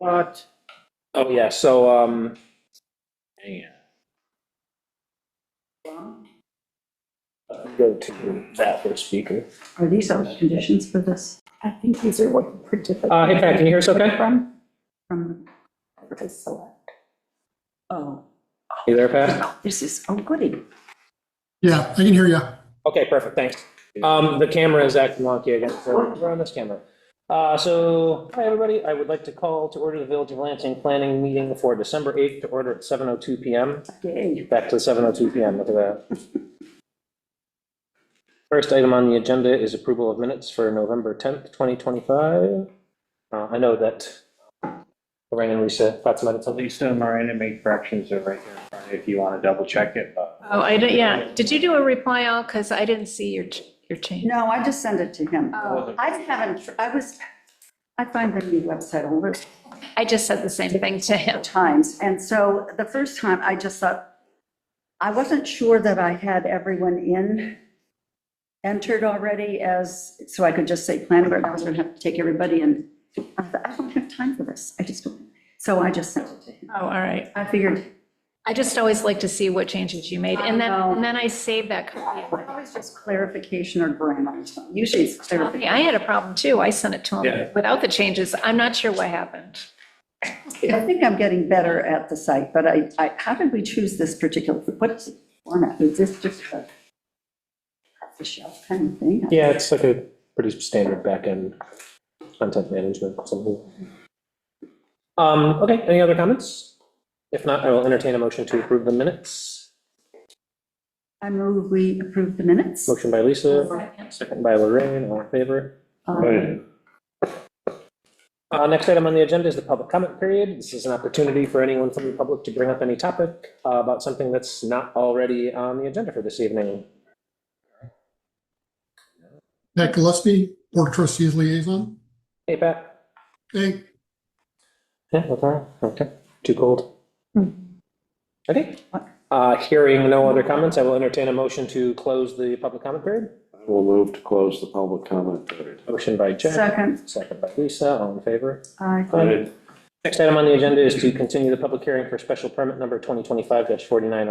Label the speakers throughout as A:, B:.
A: But, oh yeah, so, um, hang on. Uh, Go to that first speaker.
B: Are these all the conditions for this?
C: I think these are what printed
A: Uh, hey Pat, can you hear us okay?
C: from,
B: From,
C: to select.
B: oh,
A: You there, Pat?
B: this is, oh, goody.
D: Yeah, I can hear you.
A: Okay, perfect, thanks. Um, the camera is acting wonky again, so we're on this camera. Uh, so, hi everybody, I would like to call to order the Village of Lansing Planning Meeting for December 8th to order at 7:02 PM.
B: Yay.
A: Back to 7:02 PM, look at that. First item on the agenda is approval of minutes for November 10th, 2025. Uh, I know that Lorraine and Lisa thought some edits on these.
E: Lisa and Miranda make fractions are right here in front of you if you want to double check it, but.
C: Oh, I didn't, yeah, did you do a reply all? Because I didn't see your, ch- your change.
B: No, I just sent it to him.
C: Oh,
B: I haven't, I was, I find the new website a little
C: I just said the same thing to him.
B: times. And so the first time, I just thought, I wasn't sure that I had everyone in, entered already as, so I could just say planning board, I was going to have to take everybody in. I thought, I don't have time for this. I just, don't. so I just sent it to him.
C: Oh, all right.
B: I figured,
C: I just always like to see what changes you made, and then,
B: I know.
C: and then I save that copy.
B: always just clarification or grammar. or something. Usually it's clarification.
C: I had a problem too. I sent it to
E: Yeah.
C: him without the changes. I'm not sure what happened.
B: I think I'm getting better at the site, but I, I, how did we choose this particular, what format? Is this just a off-the-shelf kind of thing?
A: Yeah, it's like a pretty standard backend content management, something. Um, okay, any other comments? If not, I will entertain a motion to approve the minutes.
B: I move we approve the minutes.
A: Motion by Lisa, second by Lorraine, all in favor.
B: Um,
A: Uh, Next item on the agenda is the public comment period. This is an opportunity for anyone from the public to bring up any topic uh, about something that's not already on the agenda for this evening.
D: Pat Gillespie, Board of Trustees Liaison.
A: Hey, Pat?
D: Hey,
A: Yeah, what's wrong? Okay, too cold. Okay, Uh, hearing no other comments, I will entertain a motion to close the public comment period.
F: I will move to close the public comment period.
A: Motion by Jack,
B: Uh, Second,
A: second by Lisa, all in favor?
B: I,
A: Next item on the agenda is to continue the public hearing for special permit number 2025-4907.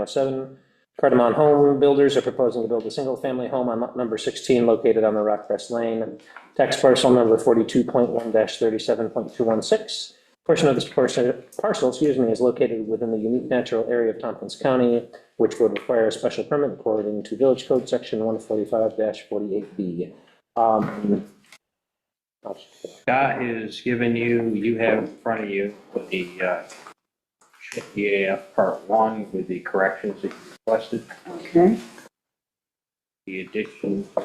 A: Cardamom Home Builders are proposing to build a single-family home on lot number 16 located on the Rockcrest Lane, tax parcel number 42.1-37.216. Portion of this parcel, parcel, excuse me, is located within the unique natural area of Tompkins County, which would require a special permit according to Village Code Section 145-48B. Um, I'll-
E: Scott is giving you, you have in front of you the uh, EAF Part 1 with the corrections that you requested,
B: okay,
E: the addition of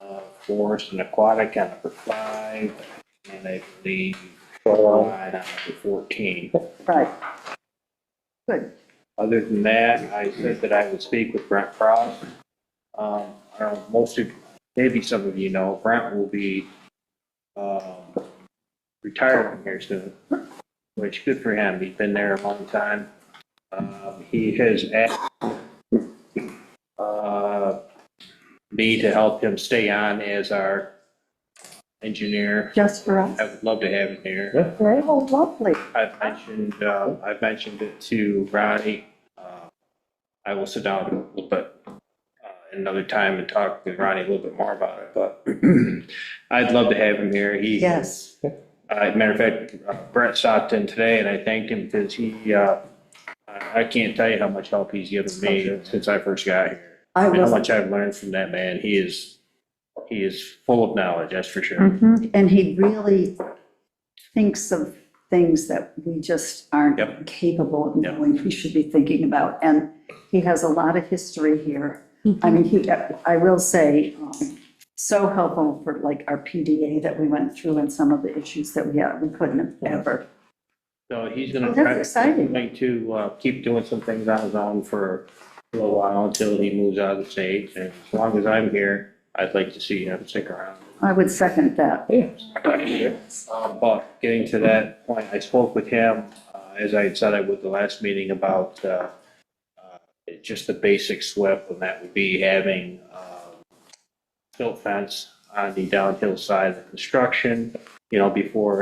E: uh, forest and aquatic on number 5, and I believe shoreline on number 14.
B: right. Good,
E: Other than that, I said that I would speak with Brent Pross. Um, I don't know, most of, maybe some of you know, Brent will be, um, retiring here soon, which good for him. He's been there a long time. Um, he has asked, uh, me to help him stay on as our engineer.
B: just for us.
E: I would love to have him here.
B: Oh, lovely.
E: I've mentioned, uh, I've mentioned it to Ronnie. Uh, I will sit down a little bit uh, another time and talk with Ronnie a little bit more about it, but I'd love to have him here. He.
B: Yes,
E: Uh, matter of fact, uh, Brett stopped in today and I thanked him because he, uh, I I can't tell you how much help he's given me since I first got here.
B: I
E: And How
B: was,
E: much I've learned from that man. He is, he is full of knowledge, that's for sure.
B: Mm-hmm. and he really thinks of things that we just aren't
E: Yep.
B: capable of
E: Yep.
B: knowing we should be thinking about. And he has a lot of history here. I mean, he, I will say, um, so helpful for like our PDA that we went through and some of the issues that we had, we couldn't have ever.
E: So he's gonna.
B: Oh, that's
E: try
B: exciting.
E: Going to uh, keep doing some things on his own for a little while until he moves out of the state. And as long as I'm here, I'd like to see him stick around.
B: I would second that.
E: Uh, But getting to that point, I spoke with him, uh, as I had said I would the last meeting, about uh, uh, just the basic SWIP, and that would be having um, silt fence on the downhill side of the construction, you know, before